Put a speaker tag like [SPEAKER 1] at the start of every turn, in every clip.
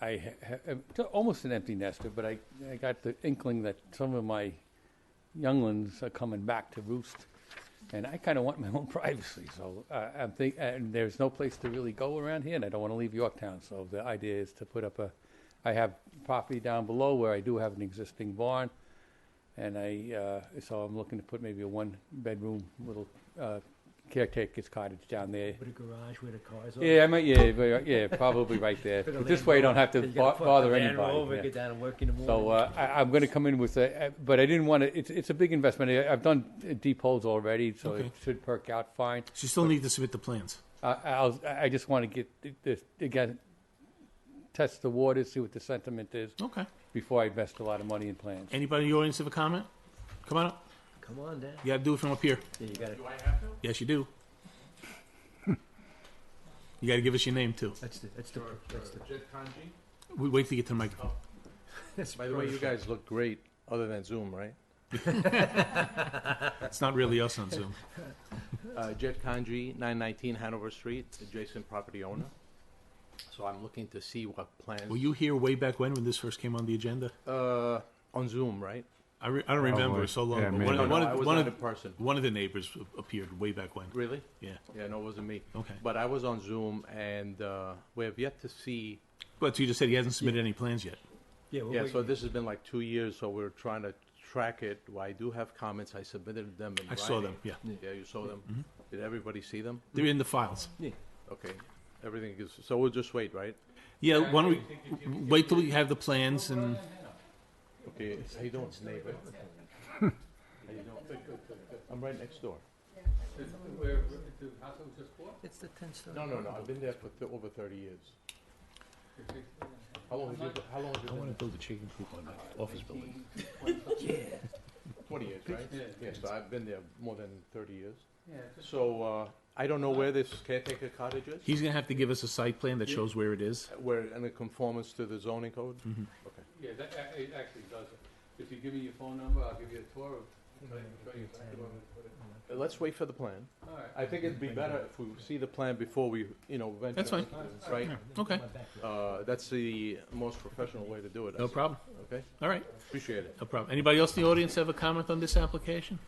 [SPEAKER 1] I ha- ha- am t- almost an empty nester, but I, I got the inkling that some of my younglings are coming back to roost, and I kind of want my own privacy. So uh, I'm think, and there's no place to really go around here, and I don't want to leave Yorktown. So the idea is to put up a. I have property down below where I do have an existing barn, and I uh, so I'm looking to put maybe a one-bedroom little uh, caretaker's cottage down there.
[SPEAKER 2] With a garage where the cars are.
[SPEAKER 1] Yeah, I might, yeah, but, yeah, probably right there.
[SPEAKER 2] Put a
[SPEAKER 1] But this
[SPEAKER 2] Land
[SPEAKER 1] way, you don't
[SPEAKER 2] Rover-
[SPEAKER 1] have to
[SPEAKER 2] you gotta
[SPEAKER 1] bo-
[SPEAKER 2] fuck the
[SPEAKER 1] bother
[SPEAKER 2] Land
[SPEAKER 1] anybody.
[SPEAKER 2] Rover,
[SPEAKER 1] yeah.
[SPEAKER 2] Get down and work in the morning.
[SPEAKER 1] So uh, I, I'm going to come in with a, uh, but I didn't want to. It's, it's a big investment. I, I've done uh, deep holes already, so it
[SPEAKER 3] Okay.
[SPEAKER 1] should perk out fine.
[SPEAKER 3] So you still need to submit the plans.
[SPEAKER 1] I I'll, I just want to get this again, test the waters, see what the sentiment is
[SPEAKER 3] Okay.
[SPEAKER 1] before I invest a lot of money in plans.
[SPEAKER 3] Anybody in the audience have a comment? Come on up.
[SPEAKER 2] Come on down.
[SPEAKER 3] You got to do it from up here.
[SPEAKER 2] Yeah, you gotta,
[SPEAKER 3] Yes, you do. you got to give us your name too.
[SPEAKER 2] that's the, that's the, that's the,
[SPEAKER 3] We wait to get to the microphone.
[SPEAKER 2] that's
[SPEAKER 4] By the way, you guys look great, other than Zoom, right?
[SPEAKER 3] It's not really us on Zoom.
[SPEAKER 4] Uh, Jet Kanji, 919 Hanover Street, adjacent property owner. So I'm looking to see what plans,
[SPEAKER 3] Were you here way back when when this first came on the agenda?
[SPEAKER 4] uh, on Zoom, right?
[SPEAKER 3] I, re- I don't remember
[SPEAKER 5] Probably.
[SPEAKER 3] It was so long.
[SPEAKER 5] Yeah,
[SPEAKER 3] ago.
[SPEAKER 5] maybe.
[SPEAKER 3] one,
[SPEAKER 4] No,
[SPEAKER 3] of-
[SPEAKER 4] no,
[SPEAKER 3] one
[SPEAKER 4] I
[SPEAKER 3] of,
[SPEAKER 4] was
[SPEAKER 3] one
[SPEAKER 4] not
[SPEAKER 3] of
[SPEAKER 4] in person.
[SPEAKER 3] one of the neighbors a- appeared way back when.
[SPEAKER 4] Really?
[SPEAKER 3] Yeah.
[SPEAKER 4] Yeah, no, it wasn't me.
[SPEAKER 3] Okay.
[SPEAKER 4] But I was on Zoom, and uh, we have yet to see,
[SPEAKER 3] But you just said he hasn't submitted any plans yet.
[SPEAKER 2] Yeah, we're
[SPEAKER 4] yeah, so
[SPEAKER 2] waiting.
[SPEAKER 4] this has been like two years, so we're trying to track it. Well, I do have comments, I submitted them in
[SPEAKER 3] I saw
[SPEAKER 4] writing.
[SPEAKER 3] them. Yeah. Mm-hmm.
[SPEAKER 4] Yeah, you saw them? Did everybody see them?
[SPEAKER 3] They're in the files.
[SPEAKER 4] Okay, everything is, so we'll just wait, right?
[SPEAKER 3] Yeah. Why don't we wait till we have the plans and
[SPEAKER 4] Okay, how you doing, neighbor? How you doing? I'm right next door.
[SPEAKER 2] It's the ten story.
[SPEAKER 4] No, no, no, I've been there for th- over thirty years. How long have you, how long have you been there?
[SPEAKER 3] build a chicken coop on that office building.
[SPEAKER 4] Twenty years, right? Yeah, so I've been there more than thirty years. So, uh, I don't know where this caretaker cottage is,
[SPEAKER 3] He's gonna have to give us a site plan that shows where it is.
[SPEAKER 4] where, and it conforms to the zoning code? Okay.
[SPEAKER 1] Yeah, that it actually does. If you give me your phone number, I'll give you a tour. Of,
[SPEAKER 3] Mm-hmm.
[SPEAKER 4] Uh, Let's wait for the plan.
[SPEAKER 1] all right.
[SPEAKER 4] I think it'd be better if we see the plan before we, you know, venture.
[SPEAKER 3] That's fine.
[SPEAKER 4] into this, Right?
[SPEAKER 3] Okay.
[SPEAKER 4] Uh, that's the most professional way to do it. I
[SPEAKER 3] No
[SPEAKER 4] see.
[SPEAKER 3] problem.
[SPEAKER 4] Okay,
[SPEAKER 3] All right.
[SPEAKER 4] appreciate it.
[SPEAKER 3] No problem. Anybody else in the audience have a comment on this application?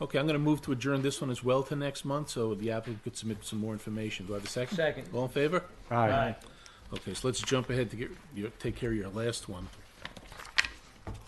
[SPEAKER 3] Okay, I'm gonna move to adjourn this one as well to next month, so the applicant could submit some more information. Do I have a second?
[SPEAKER 2] Second.
[SPEAKER 3] All in favor?
[SPEAKER 5] Aye.
[SPEAKER 3] Okay, so let's jump ahead to get, your- take care of your last one.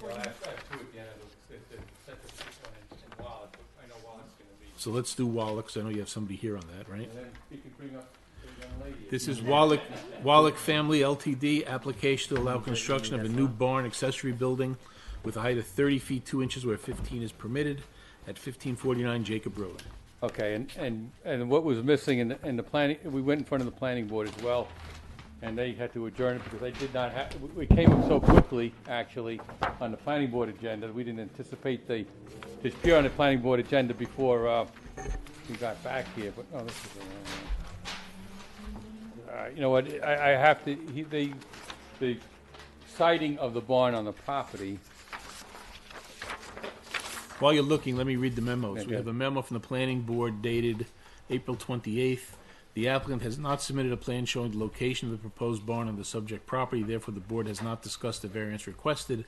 [SPEAKER 1] Well, I have, I have two again. It'll- it- it- set the first one in- in Wallace, but I know Wallace is going to be.
[SPEAKER 3] So let's do Wallach, 'cause I know you have somebody here on that, right?
[SPEAKER 1] And then you can bring up the young lady.
[SPEAKER 3] This is Wallach, Wallach Family LTD, application to allow construction of a new barn accessory building with a height of thirty feet, two inches where fifteen is permitted, at fifteen forty-nine Jacob Road.
[SPEAKER 1] Okay, and, and, and what was missing in, the- in the planning, we went in front of the planning board as well, and they had to adjourn it because they did not have, we came up so quickly, actually, on the planning board agenda, we didn't anticipate the, this appear on the planning board agenda before, uh, we got back here, but, oh, this is the wrong one. All right, you know what, I, I have to, he, the, the sighting of the barn on the property,
[SPEAKER 3] While you're looking, let me read the memos. We
[SPEAKER 1] Okay.
[SPEAKER 3] have a memo from the planning board dated April twenty-eighth. The applicant has not submitted a plan showing the location of the proposed barn on the subject property, therefore the board has not discussed the variance requested.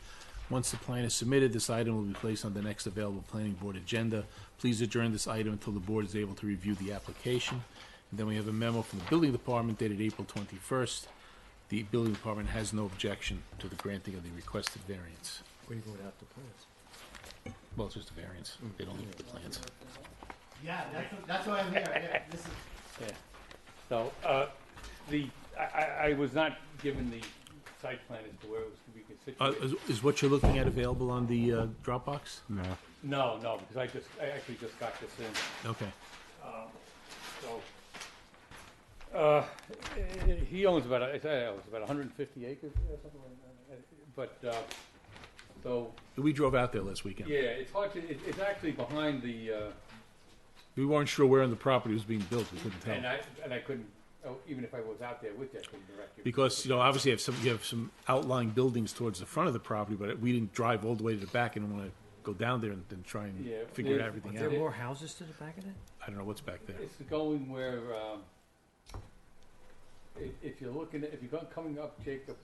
[SPEAKER 3] Once the plan is submitted, this item will be placed on the next available planning board agenda. Please adjourn this item until the board is able to review the application. And then we have a memo from the building department dated April twenty-first. The building department has no objection to the granting of the requested variance.
[SPEAKER 2] We're going out to plans.
[SPEAKER 3] Well, it's just a variance. They don't look at the plans.
[SPEAKER 6] Yeah, that's, that's why I'm here. Yeah, This is
[SPEAKER 1] So, uh, the, I, I, I was not given the site plan as to where it was to be
[SPEAKER 3] Uh,
[SPEAKER 1] constituted.
[SPEAKER 3] is, is what you're looking at available on the uh, Dropbox?
[SPEAKER 5] No.
[SPEAKER 1] No, no, because I just, I actually just got this in,
[SPEAKER 3] Okay.
[SPEAKER 1] so. Uh, eh, he owns about, I say, it was about hundred and fifty acres or something like that, but, uh, so,
[SPEAKER 3] We drove out there last weekend.
[SPEAKER 1] yeah, it's hard to, it, it's actually behind the, uh,
[SPEAKER 3] We weren't sure where on the property was being built. We couldn't
[SPEAKER 1] and
[SPEAKER 3] tell.
[SPEAKER 1] I, and I couldn't, oh, even if I was out there with you, I couldn't direct you.
[SPEAKER 3] Because, you know, obviously you have some, you have some outlying buildings towards the front of the property, but we didn't drive all the way to the back and want to go down there and, and try and
[SPEAKER 1] Yeah,
[SPEAKER 3] figure
[SPEAKER 1] they-
[SPEAKER 3] everything
[SPEAKER 1] Yeah.
[SPEAKER 2] There are
[SPEAKER 3] out.
[SPEAKER 2] more houses to the back of that?
[SPEAKER 3] I don't know what's back there.
[SPEAKER 1] It's going where, um, if, if you're looking, at if you're go- coming up Jacob